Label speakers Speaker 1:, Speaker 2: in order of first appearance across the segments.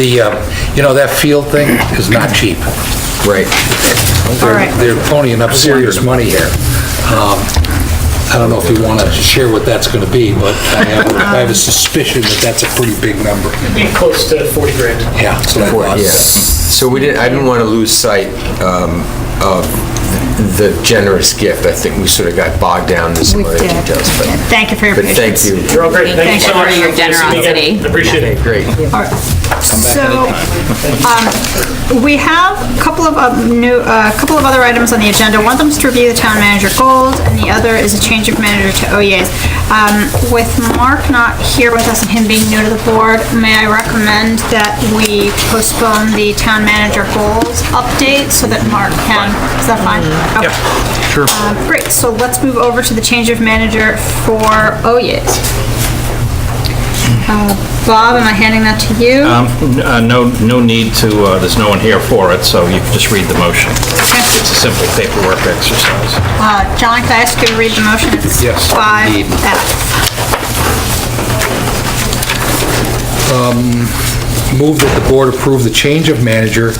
Speaker 1: The, uh, you know, that field thing is not cheap.
Speaker 2: Right.
Speaker 1: They're-
Speaker 3: right.
Speaker 1: They're ponying up serious money here. Um, I don't know if you want to share what that's going to be, but I have I have a suspicion that that's a pretty big number.
Speaker 4: Be close to 40 grand.
Speaker 1: Yeah. that's what I
Speaker 2: For-
Speaker 1: thought.
Speaker 2: yeah. So we didn't, I didn't want to lose sight um, of the generous gift. I think we sort of got bogged down in some
Speaker 3: We
Speaker 2: other
Speaker 3: did.
Speaker 2: details, but.
Speaker 3: Yeah, thank you for your
Speaker 2: but thank
Speaker 3: patience.
Speaker 2: you.
Speaker 4: You're all great.
Speaker 3: Thank
Speaker 4: Thank you
Speaker 3: you
Speaker 4: so
Speaker 3: for
Speaker 4: much.
Speaker 5: your
Speaker 4: Nice to meet
Speaker 5: generosity.
Speaker 4: you. Appreciate it.
Speaker 2: Great.
Speaker 3: All right. So, um, we have a couple of, uh, new, a couple of other items on the agenda. One of them's to review the town manager goals, and the other is a change of manager to OEAs. Um, With Mark not here with us and him being new to the board, may I recommend that we postpone the town manager goals update so that Mark can, is that fine? Mm-hmm. Yep, sure. Great, so let's move over to the change of manager for OEAs. Uh, Bob, am I handing that to you?
Speaker 6: Um, n- uh, No, no need to, uh, there's no one here for it, so you can just read the motion. It's a simple paperwork exercise.
Speaker 3: Uh, John, can I ask you to read the motion? It's
Speaker 1: Yes,
Speaker 3: Five
Speaker 1: indeed.
Speaker 3: F.
Speaker 1: Move that the board approve the change of manager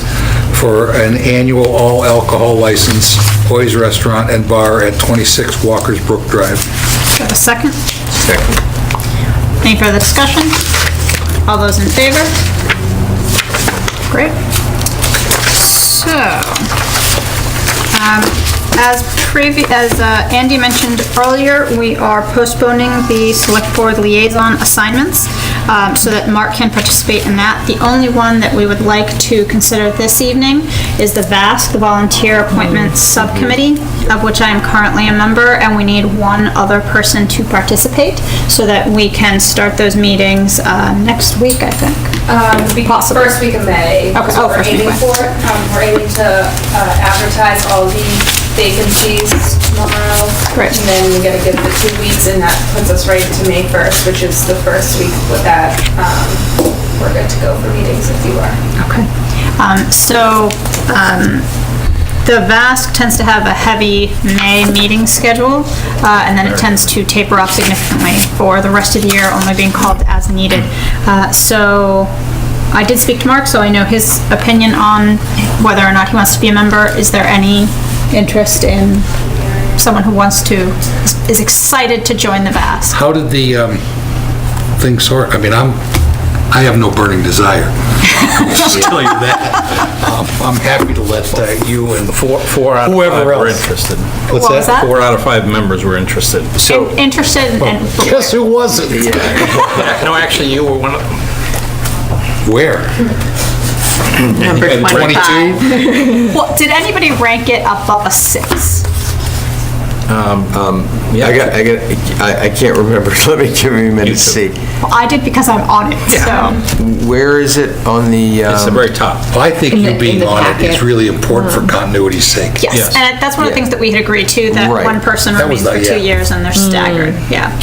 Speaker 1: for an annual all alcohol license, Hoy's Restaurant and Bar at 26 Walker's Brook Drive.
Speaker 3: Do you have a second?
Speaker 2: Second.
Speaker 3: Any further discussion? All those in favor? Great. So, um, as previ, as uh, Andy mentioned earlier, we are postponing the select board liaison assignments um, so that Mark can participate in that. The only one that we would like to consider this evening is the VASC, the Volunteer Appointments Subcommittee, of which I am currently a member, and we need one other person to participate so that we can start those meetings uh, next week, I think.
Speaker 7: Um, we-
Speaker 3: Possible.
Speaker 7: First week of May.
Speaker 3: Okay,
Speaker 7: is
Speaker 3: oh,
Speaker 7: what we're
Speaker 3: first week of
Speaker 7: aiming
Speaker 3: May.
Speaker 7: for. Um, We're aiming to uh, advertise all the vacancies tomorrow.
Speaker 3: Right.
Speaker 7: And then we gotta give it two weeks, and that puts us right to May 1st, which is the first week with that. um, We're good to go for meetings if you are.
Speaker 3: Okay. Um, So um, the VASC tends to have a heavy May meeting schedule, uh, and then it tends to taper off significantly for the rest of the year, only being called as needed. Uh, So I did speak to Mark, so I know his opinion on whether or not he wants to be a member. Is there any interest in someone who wants to, is excited to join the VASC?
Speaker 1: How did the um, thing sort, I mean, I'm, I have no burning desire. I'll just tell you that. Um, I'm happy to let uh, you and
Speaker 6: Four four out of
Speaker 1: Whoever
Speaker 6: five were
Speaker 1: else.
Speaker 6: interested.
Speaker 1: What's
Speaker 3: What was that?
Speaker 6: Four out of five members were interested.
Speaker 2: So,
Speaker 3: Interested and
Speaker 1: Guess who wasn't?
Speaker 6: No, actually, you were one of them.
Speaker 1: Where?
Speaker 5: Number
Speaker 1: And
Speaker 5: 25.
Speaker 3: Well, did anybody rank it above a six?
Speaker 2: I got, I got, I I can't remember. Let me give me a minute to see.
Speaker 3: Well, I did because I'm on it, so.
Speaker 2: Where is it on the?
Speaker 6: It's the
Speaker 2: um,
Speaker 6: very top.
Speaker 1: I think
Speaker 5: In the-
Speaker 1: you being
Speaker 5: in the
Speaker 1: on it is
Speaker 5: packet. Mm-hmm.
Speaker 1: really important for continuity's sake.
Speaker 3: Yes,
Speaker 6: Yes.
Speaker 3: and that's one of the
Speaker 2: Yeah.
Speaker 3: things that we had agreed to, that
Speaker 2: Right.
Speaker 3: one person
Speaker 1: That
Speaker 3: remains
Speaker 1: was
Speaker 3: for
Speaker 1: the-
Speaker 3: two
Speaker 1: yeah.
Speaker 3: years and they're staggered, yeah.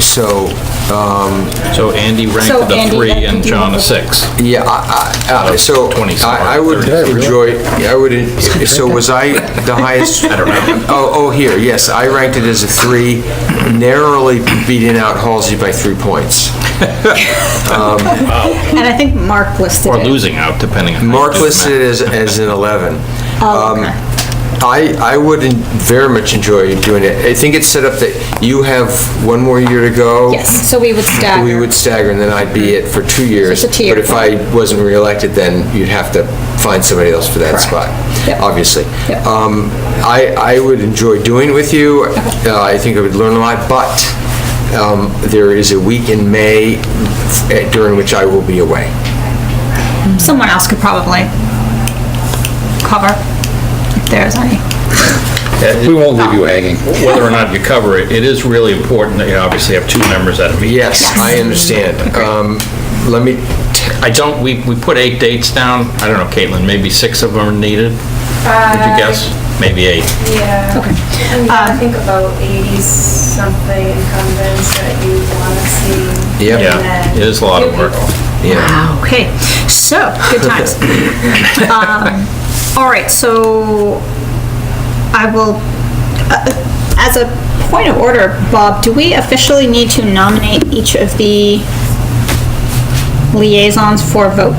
Speaker 2: So,
Speaker 6: So Andy
Speaker 3: So
Speaker 6: ranked it a
Speaker 3: Andy,
Speaker 6: three
Speaker 3: that
Speaker 6: and
Speaker 3: could be
Speaker 6: John
Speaker 3: one
Speaker 6: a
Speaker 3: of-
Speaker 6: six.
Speaker 2: Yeah, I- I- I- so
Speaker 6: 20
Speaker 2: I I would
Speaker 6: Did I
Speaker 1: really?
Speaker 2: enjoy, I would, en- so was I the highest? I don't know. Oh, oh, here, yes, I ranked it as a three, narrowly beating out Halsey by three points.
Speaker 3: And I think Mark listed
Speaker 6: Or
Speaker 3: it.
Speaker 6: losing out, depending on. how you
Speaker 2: Mark
Speaker 6: do the
Speaker 2: listed it as, as an 11.
Speaker 3: Oh,
Speaker 2: Um,
Speaker 3: okay.
Speaker 2: I, I would en- very much enjoy doing it. I think it's set up that you have one more year to go.
Speaker 3: Yes, so we would
Speaker 2: We
Speaker 3: stagger.
Speaker 2: would stagger, and then I'd be it for two years.
Speaker 3: So it's a two-year
Speaker 2: But if I wasn't reelected, then you'd have to find somebody else for that spot,
Speaker 3: Yep.
Speaker 2: obviously.
Speaker 3: Yep.
Speaker 2: Um, I, I would enjoy doing it with you. Uh, I think I would learn a lot, but um, there is a week in May eh, during which I will be away.
Speaker 3: Someone else could probably cover if there's any.
Speaker 1: We won't leave you hanging.
Speaker 6: Uh, Whether or not you cover it, it is really important that you obviously have two members at a meeting.
Speaker 2: Yes, I understand. Um, Let me, t-
Speaker 6: I don't, we, we put eight dates down. I don't know, Caitlin, maybe six of them are needed? Would you guess? Maybe eight.
Speaker 7: Yeah.
Speaker 3: Okay.
Speaker 7: And yeah, I
Speaker 3: Um,
Speaker 7: think about 80-something incumbents that you want to see.
Speaker 2: Yep.
Speaker 7: and
Speaker 6: Yeah,
Speaker 7: then
Speaker 6: it is a lot of
Speaker 7: new
Speaker 6: work.
Speaker 7: people.
Speaker 2: yeah.
Speaker 3: Okay, so, good times. Um, All right, so I will, uh, as a point of order, Bob, do we officially need to nominate each of the liaisons for vote.